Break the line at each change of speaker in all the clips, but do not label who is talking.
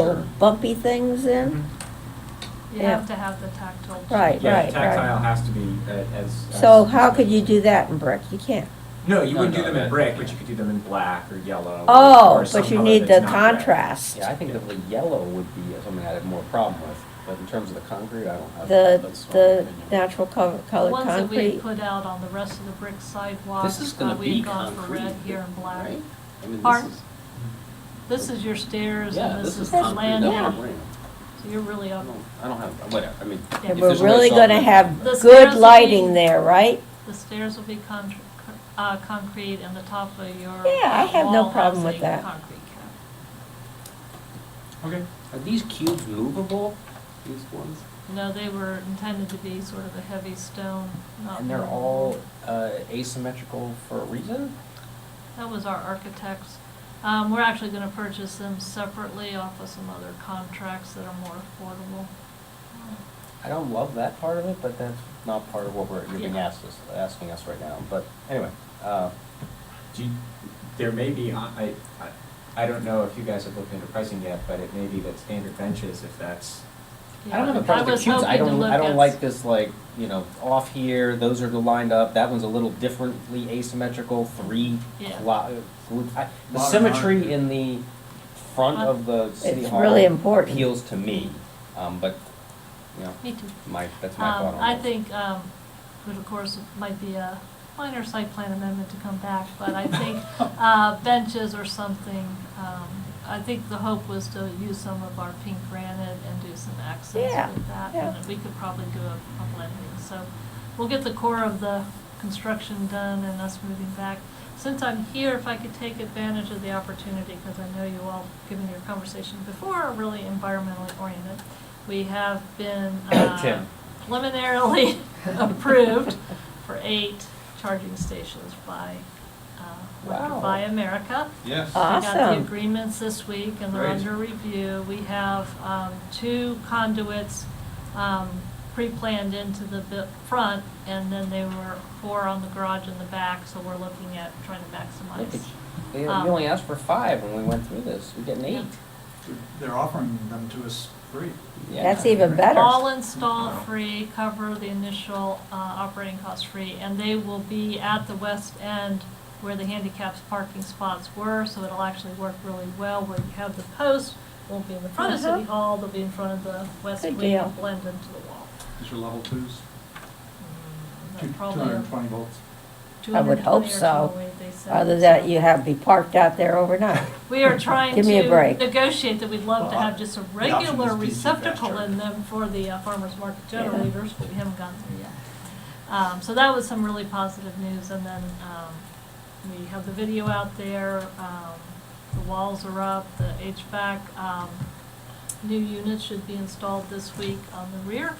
little bumpy things in?
Mm-hmm.
You
Yeah.
have to have the tactile.
Right,
Mm-hmm. Yeah,
right,
tactile
right.
has to be a- as. as-
So how could you do that in brick? You can't.
No, you
No,
wouldn't
no,
do them in
that-
brick, but you could do them in black or
Uh,
yellow. or- or
Oh,
some
but you
color
need the
that's not red.
contrast.
Yeah, I think that the yellow would be something I'd have more problem with, but in terms of the concrete, I don't have.
The,
that's my
the
opinion.
natural color,
The
colored
ones that we had
concrete.
put out on the rest of the brick sidewalks.
This is gonna
uh, we had
be
gone for
concrete.
red here and black.
right? I mean, this
Pardon?
is,
This is your stairs
yeah,
and
this is
the
concrete, that's what I'm
landing.
bringing.
So you're really
I
up,
don't, I don't have, whatever, I mean. if
And
And we're
there's a way to
really
solve
gonna
it-
have
The stairs
good
will
lighting
be-
there, right?
the stairs will be con- uh, concrete and the top of your.
Yeah, I have no
wall
problem
has
with
a
that.
Concrete cap.
Okay.
Are these cubes movable, these ones?
No, they were intended to be sort of a heavy stone, not.
And they're all uh, asymmetrical for a reason?
That was our architects. Um, we're actually gonna purchase them separately off of some other contracts that are more affordable.
I don't love that part of it, but that's not part of what we're, you're being
Yeah.
asked us, asking us right now, but anyway. uh,
Do you, there may be, I, I, I don't know if you guys have looked into pricing yet, but it may be that standard benches, if that's,
I don't have
Yeah,
a problem with
was
the cubes, I
hoping to
don't, I
look
don't
at-
like this, like, you know, off here, those are lined up, that one's a little differently asymmetrical, three.
Yeah.
cla- group- I- The
Modern
symmetry in the front
Uh,
of the city
It's
hall.
really important.
Appeals to me, um, but, you know,
Me too.
my, that's my thought
Um,
on
I
that.
think, um, which of course might be a minor site plan amendment to come back, but I think, uh, benches or something, um, I think the hope was to use some of our pink granite and do some
Yeah,
accents with that.
yeah.
And we could probably do a, a blending, so we'll get the core of the construction done and us moving back. Since I'm here, if I could take advantage of the opportunity, because I know you all, given your conversation before, are really environmentally oriented. We have been, uh,
Tim.
preliminarily approved for eight charging stations by, uh,
Wow.
Electric Buy America.
Yes.
We got the
Awesome.
agreements this week and they're
Great.
under review. We have um, two conduits um, pre-planned into the bu- front and then they were four on the garage in the back, so we're looking at trying to
Look at you.
maximize.
They- We
um,
only asked for five when we went through this, we get an eight.
They're offering them to us free.
Yeah.
That's even better.
All install free, cover the initial uh, operating cost free, and they will be at the west end where the handicapped parking spots were, so it'll actually work really well where you have the post, won't be in the front of
Uh-huh.
City Hall, they'll be in front of the west
Good
wing,
deal.
and blend into the wall.
These are level twos,
Mm, that
two two
probably-
hundred and twenty volts.
I would hope
220 or
so.
208, they said,
Other
so.
that you have to be parked out there overnight.
We are trying
Give me a
to
break.
negotiate that we'd love to
Well,
have just a
the option
regular
is be
receptacle
faster.
in them for the uh, farmer's market generators, but we haven't gotten there yet. Um, so that was some really positive news, and then, um, we have the video out there, um, the walls are up, the HVAC, um, new units should be installed this week on the rear,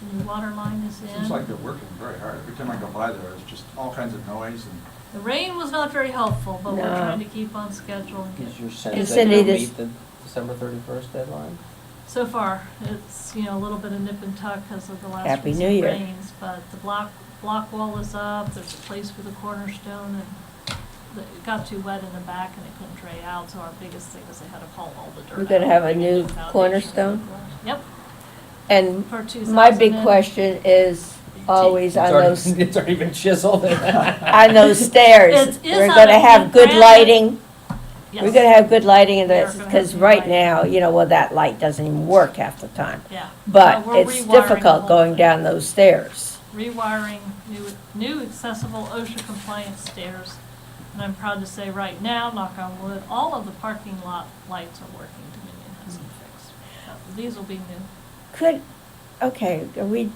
the new water line is in.
Seems like they're working very hard. Every time I go by there, it's just all kinds of noise and
The rain was not very helpful, but we're
No.
trying to keep on schedule and
Is
get.
your
get
sense
it
that
Cindy,
you'll
done.
this-
meet the December thirty-first deadline?
So far, it's, you know, a little bit of nip and tuck because of the last
Happy New
recent
Year.
rains, but the block, block wall is up, there's a place for the cornerstone, and the- it got too wet in the back and it couldn't dry out, so our biggest thing is they had to haul all the dirt out.
We're gonna have a
and
new
make foundation.
cornerstone?
Yep,
And
for two thousand.
my big question is always
It's
on
already-
those,
It's already been chiseled.
on those stairs.
It is
We're
on
gonna
a
have
big
good
granite-
lighting.
Yes.
We're gonna have good lighting in
We are
this,
gonna
because
have good
right
lighting.
now, you know, well, that light doesn't even work half the time.
Yeah.
But
we're
it's
rewiring the
difficult
whole
going
thing.
down those stairs.
rewiring new, new accessible OSHA compliant stairs. And I'm proud to say right now, knock on wood, all of the parking lot lights are working. Dominion has them
Mm.
fixed. Uh, These will be new.
Could, okay, are we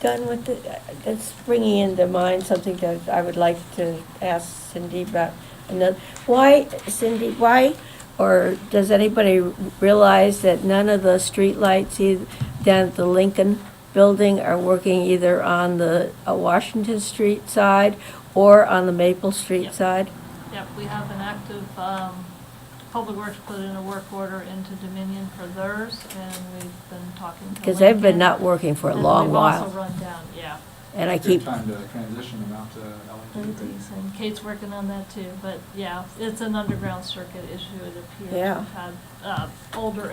done with the, uh, that's bringing into mind something that I would like to ask Cindy about. Another, why, Cindy, why, or does anybody realize that none of the streetlights eith- down at the Lincoln Building are working either on the uh, Washington Street side or on the Maple Street
Yep.
side?
Yep, we have an active, um, Public Works put in a work order into Dominion for theirs, and we've been talking to
Because they've been
Lincoln.
not working for a
And
long
we've also
while.
run down, yeah.
And I
it's
keep,
good time to transition them out to E LED.
LEDs, E and Kate's working on that too, but yeah, it's an underground circuit issue, it appears.
Yeah.
We've had, uh, older